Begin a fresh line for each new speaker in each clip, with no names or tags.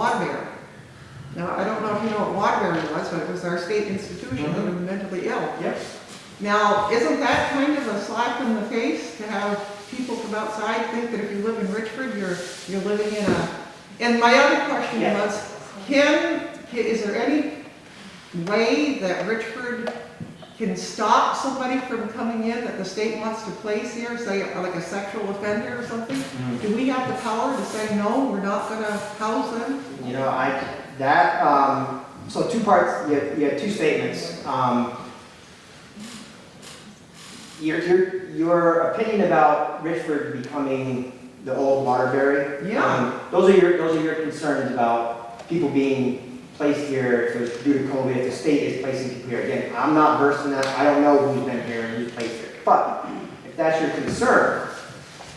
Waterbury. Now, I don't know if you know what Waterbury was, but it was our state institution for the mentally ill.
Yep.
Now, isn't that kind of a slap in the face to have people from outside think that if you live in Richford, you're, you're living in a, and my other question
Yeah.
was, can, is there any way that Richford can stop somebody from coming in that the state wants to place here, say, like a sexual offender or something? Do we have the power to say, no, we're not gonna house them?
You know, I, that, um, so two parts, you have, you have two statements. Um, Your, your, your opinion about Richford becoming the old Waterbury.
Yeah.
um, Those are your, those are your concerns about people being placed here if it's due to COVID, if the state is placing people here. Again, I'm not versed in that, I don't know who's been here and who's placed here. But if that's your concern,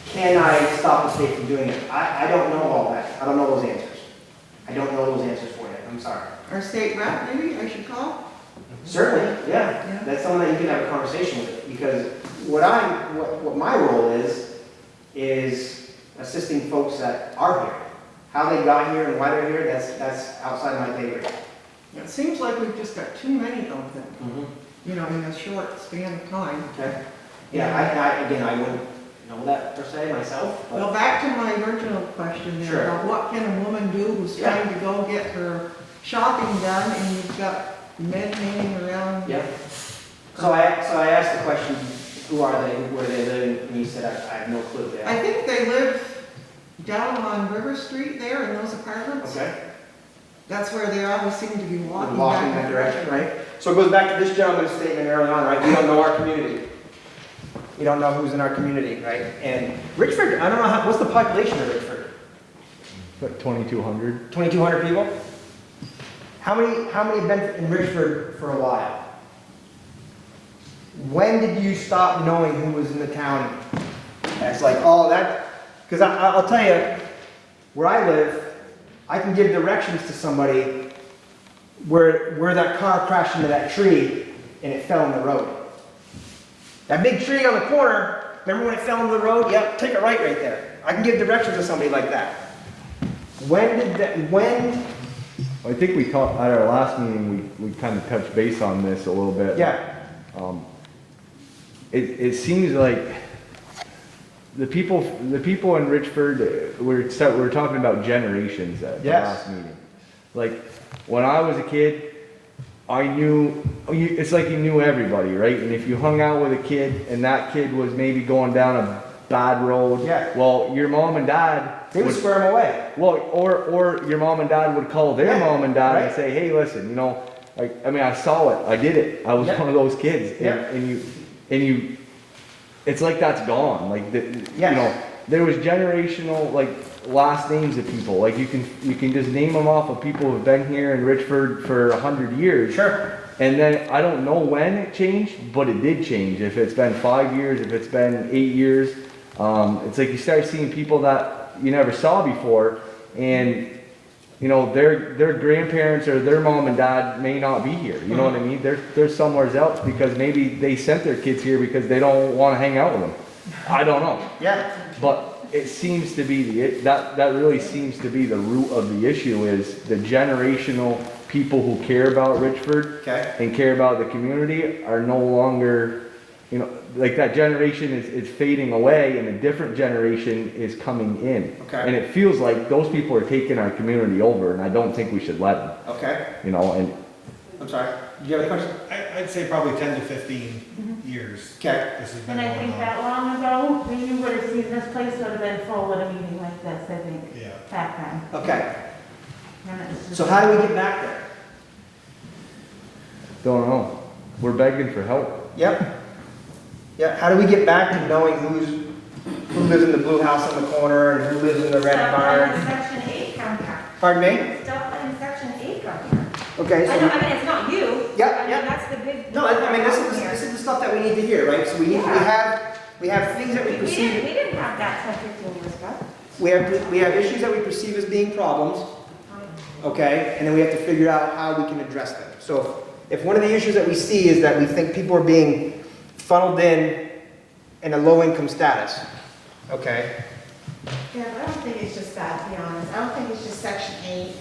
can I stop the state from doing it? I, I don't know all that, I don't know those answers. I don't know those answers for you, I'm sorry.
Our state rep, maybe I should call?
Certainly, yeah,
Yeah.
that's something that you can have a conversation with, because what I'm, what, what my role is, is assisting folks that are here. How they got here and why they're here, that's, that's outside my pay grade.
It seems like we've just got too many of them. you know, in a short span of time.
Okay, yeah, I, I, again, I wouldn't know that per se myself, but,
Well, back to my original question
Sure.
there, about what can a woman do who's
Yeah.
trying to go get her shopping done and you've got men hanging around?
yeah. So I, so I asked the question, who are they, where they live, and you said, I, I have no clue,
I
yeah.
think they live down on River Street there in those apartments.
Okay.
That's where they always seem to be walking back.
walking that direction, right? So it goes back to this gentleman's statement early on, right? We don't know our community. We don't know who's in our community, right? And Richford, I don't know, how- what's the population of Richford?
Like 2,200?
2,200 people? How many, how many have been in Richford for a while? When did you stop knowing who was in the town? That's like, oh, that, because I, I- I'll tell you, where I live, I can give directions to somebody where, where that car crashed into that tree and it fell in the road. That big tree on the corner, remember when it fell into the road? Yep, take it right right there. I can give directions to somebody like that. When did that, when,
I think we talked, at our last meeting, we, we kind of touched base on this a little bit.
yeah,
It, it seems like the people, the people in Richford, uh, we're, set- we're talking about generations at the
Yes.
last meeting. Like, when I was a kid, I knew, you- it's like you knew everybody, right? And if you hung out with a kid and that kid was maybe going down a bad road.
Yeah.
Well, your mom and dad.
they would
would-
square them away.
Well, or or your mom and dad would call their
Yeah,
mom and dad
right.
and say, "Hey, listen, you know, like I mean, I saw it, I did it, I was
Yeah.
one of those kids." And,
Yeah.
and you, and you, it's like that's gone. Like the,
Yes.
you know, there was generational like last names of people. Like you can you can just name them off of people who've been here in Richford for a hundred years.
Sure.
And then I don't know when it changed, but it did change. If it's been five years, if it's been eight years, um, it's like you start seeing people that you never saw before, and you know their their grandparents or their mom and dad may not be here. You know what I mean? They're they're somewhere else because maybe they sent their kids here because they don't want to hang out with them. I don't know,
Yeah,
but it seems to be the it, that that really seems to be the root of the issue is the generational people who care about Richford
okay.
and care about the community are no longer, you know, like that generation is, is fading away and a different generation is coming in.
Okay.
And it feels like those people are taking our community over and I don't think we should let them,
Okay,
you know, and
I'm sorry. Do you have a question?
I, I'd say probably ten to fifteen years.
Okay.
This has been
Mm-hmm. And I
going
think
on.
that long ago, we would have seen this place would have been full with a meeting like this, I think,
Yeah.
back then.
Okay,
And it's just-
so how do we get back there?
don't know. We're begging for help.
Yep. Yeah, how do we get back to knowing who's, who lives in the blue house on the corner and who lives in the red
Stuff in
barn?
section eight come here.
Pardon me?
Stuff in section eight come here.
Okay,
I know,
so,
I mean, it's not you.
Yeah,
I mean,
yeah.
That's the big.
no, I I mean, this is,
here.
this is the stuff that we need to hear, right? So we, we have, we have things that we
We
perceive.
didn't, we didn't have that stuff fifteen years ago.
We have, we have issues that we perceive as being problems, okay? And then we have to figure out how we can address them. So if if one of the issues that we see is that we think people are being funneled in in a low-income status, okay?
Yeah, but I don't think it's just that, to be honest. I don't think it's just section eight.